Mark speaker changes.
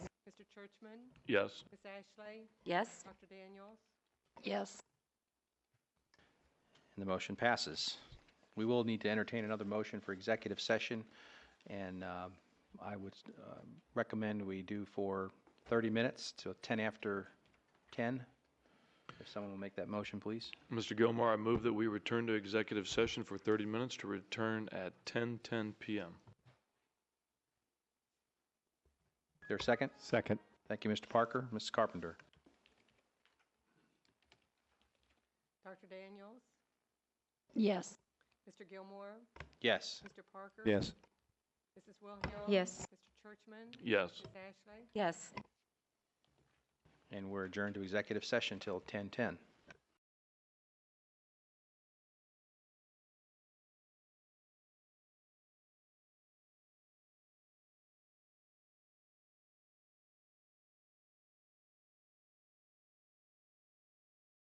Speaker 1: Richmond,
Speaker 2: Yes.
Speaker 1: Ms. Ashley,
Speaker 3: Yes?
Speaker 1: Dr. Daniels.
Speaker 3: Yes.
Speaker 4: And the motion passes. We will need to entertain another motion for executive session, and um, I would um, recommend we do for 30 minutes to 10 after 10. If someone will make that motion, please.
Speaker 2: Mr. Gilmore, I move that we return to executive session for 30 minutes to return at 10:10 PM.
Speaker 4: Is there a second?
Speaker 5: Second.
Speaker 4: Thank you, Mr. Parker. Mrs. Carpenter?
Speaker 1: Dr. Daniels,
Speaker 3: Yes.
Speaker 1: Mr. Gilmore,
Speaker 4: Yes.
Speaker 1: Mr. Parker.
Speaker 5: Yes.
Speaker 1: Mrs. Wilhelm.
Speaker 3: Yes.
Speaker 1: Mr. Churchman.
Speaker 2: Yes.
Speaker 1: Ms. Ashley.
Speaker 3: Yes.
Speaker 4: And we're adjourned to executive session till 10:10.